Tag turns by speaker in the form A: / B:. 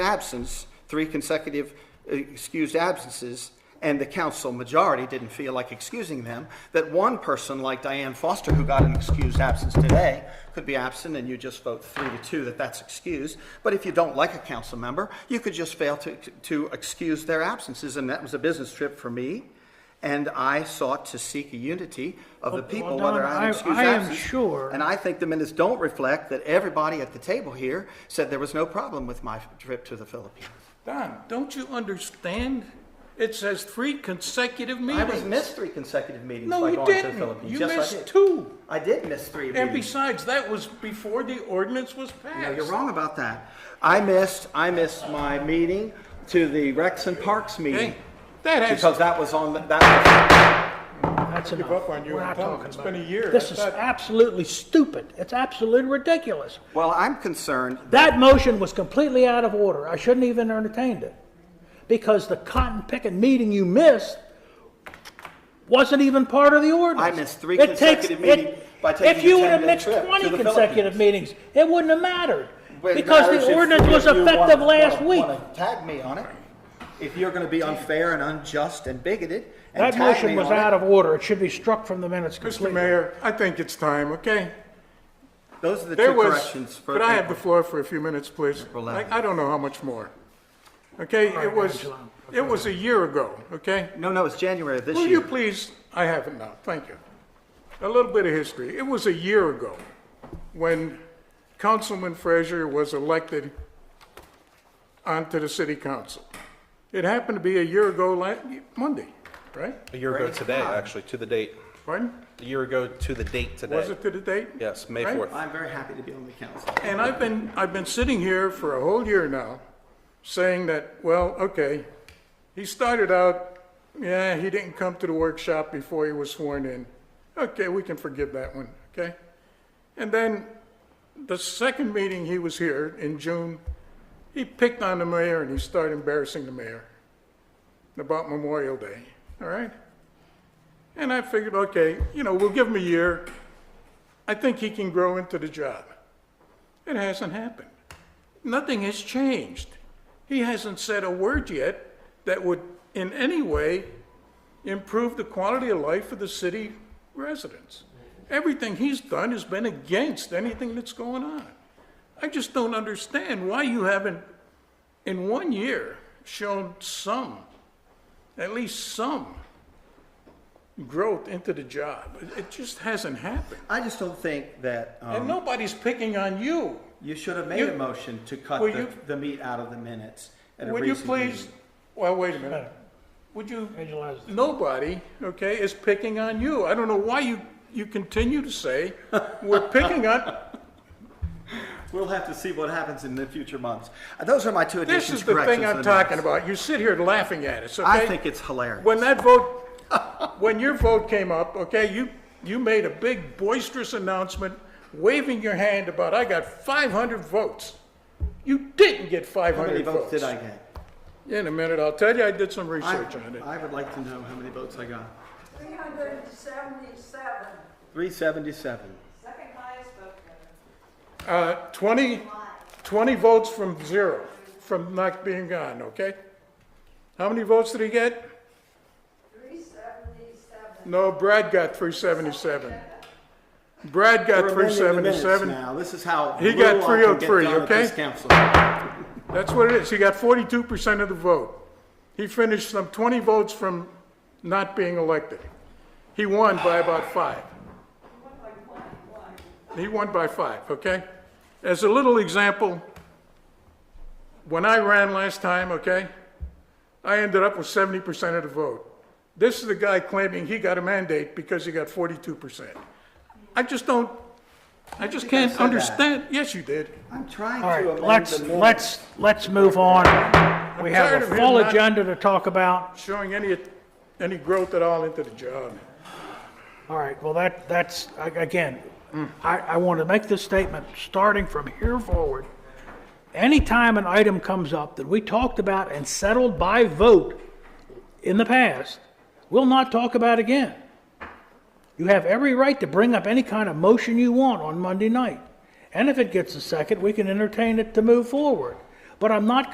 A: absence, three consecutive uh, excused absences, and the council majority didn't feel like excusing them, that one person like Diane Foster, who got an excused absence today, could be absent and you just vote three to two that that's excused. But if you don't like a council member, you could just fail to, to excuse their absences. And that was a business trip for me. And I sought to seek a unity of the
B: Well,
A: people,
B: Don,
A: whether I had
B: I-
A: an excused
B: I am
A: absence.
B: sure-
A: And I think the minutes don't reflect that everybody at the table here said there was no problem with my trip to the Philippines.
B: Don, don't you understand? It says three consecutive
A: I
B: meetings.
A: was missed three consecutive meetings
B: No,
A: by
B: you
A: going to the
B: didn't.
A: Philippines.
B: You
A: Yes, I
B: missed
A: did.
B: two.
A: I did miss three
B: And
A: meetings.
B: besides, that was before the ordinance was passed.
A: No, you're wrong about that. I missed, I missed my meeting to the Rex and Parks meeting
B: Hey, that has,
A: because that was on, the- that,
C: That's
D: give up on
C: enough.
D: you
C: We're
D: and
C: not
D: tell 'em
C: talking
D: it's
C: about
D: been a
C: it.
D: year.
C: This is
D: That's not-
C: absolutely stupid. It's absolutely ridiculous.
A: was- well, I'm concerned.
C: That motion was completely out of order. I shouldn't even entertained it. Because the cotton picking meeting you missed wasn't even part of the ordinance.
A: I missed three
C: It takes-
A: consecutive
C: it-
A: meetings by taking
C: If
A: a
C: you would have
A: 10-day
C: mixed
A: trip to
C: twenty
A: the
C: consecutive
A: Philippines.
C: meetings, it wouldn't have mattered.
A: Well, it
C: Because
A: matters if
C: the ordinance
A: you-
C: was
A: if you
C: effective
A: wanna-
C: last
A: wanna-
C: week.
A: wanna Tag me on it. If you're gonna be unfair and unjust and bigoted and
C: That
A: tag
C: motion
A: me
C: was
A: on it-
C: out of order. It should be struck from the minutes
D: Mr.
C: completely.
D: Mayor, I think it's time, okay?
A: Those are the
D: There
A: two
D: was,
A: corrections for.
D: could I have the
A: April.
D: floor for a few minutes, please? I,
A: eleventh.
D: I don't know how much more. Okay, it was, it was a year ago, okay?
A: No, no, it's January of this
D: Will you
A: year.
D: please, I have it now, thank you. A little bit of history. It was a year ago when Councilman Frazier was elected onto the city council. It happened to be a year ago, la- Monday, right?
E: A year ago today, actually, to the date.
D: Pardon?
E: A year ago to the date today.
D: Was it to the date?
E: Yes, May
D: Right?
E: 4th.
A: I'm very happy to be on the council.
D: And I've been, I've been sitting here for a whole year now, saying that, well, okay, he started out, yeah, he didn't come to the workshop before he was sworn in. Okay, we can forgive that one, okay? And then, the second meeting he was here in June, he picked on the mayor and he started embarrassing the mayor about Memorial Day, all right? And I figured, okay, you know, we'll give him a year. I think he can grow into the job. It hasn't happened. Nothing has changed. He hasn't said a word yet that would in any way improve the quality of life of the city residents. Everything he's done has been against anything that's going on. I just don't understand why you haven't, in one year, shown some, at least some, growth into the job. It- It just hasn't happened.
A: I just don't think that
D: And
A: um,
D: nobody's picking on you.
A: you should have made
D: you-
A: a motion to cut
D: Will
A: the,
D: you-
A: the meat out of the minutes at a
D: Would you
A: recent
D: please,
A: meeting.
D: well, wait a minute. Would you,
C: Visualize it.
D: nobody, okay, is picking on you. I don't know why you, you continue to say, we're picking on,
A: We'll have to see what happens in the future months. Uh, Those are my two
D: this
A: additions,
D: is the
A: corrections.
D: thing
A: to
D: I'm
A: the minutes.
D: talking about. You sit here laughing at us, okay?
A: I think it's hilarious.
D: When that vote, when your vote came up, okay, you, you made a big boisterous announcement, waving your hand about, I got 500 votes. You didn't get
A: How many
D: 500
A: votes
D: votes.
A: did I get?
D: In a minute, I'll tell you, I did some
A: I-
D: research on it.
A: I would like to know how many votes I got.
F: 377,
A: Three seventy-seven.
F: second highest vote getter.
D: Uh, 20, 20 votes from zero, from not being gone, okay? How many votes did he get?
F: 377.
D: No, Brad got 377. Brad got
A: We're amending the minutes
D: 377.
A: Now, this is how.
D: He got
A: little I can get
D: 303,
A: done at
D: okay?
A: this council.
D: That's what it is. He got 42% of the vote. He finished some 20 votes from not being elected. He won by about five. He won by five, okay? As a little example, when I ran last time, okay, I ended up with 70% of the vote. This is the guy claiming he got a mandate because he got 42%. I just don't, I just can't
A: said that.
D: understand. Yes, you did.
A: I'm trying
C: All
A: to amend
C: right,
A: the
C: let's,
A: minutes.
C: let's, let's move on. We
D: tired
C: have a
D: of him
C: full
D: not-
C: agenda to talk about.
D: Showing any, any growth at all into the job.
C: All right, well, that, that's, a- again, I, I want to make this statement, starting from here forward. Anytime an item comes up that we talked about and settled by vote in the past, we'll not talk about again. You have every right to bring up any kind of motion you want on Monday night. And if it gets a second, we can entertain it to move forward. But I'm not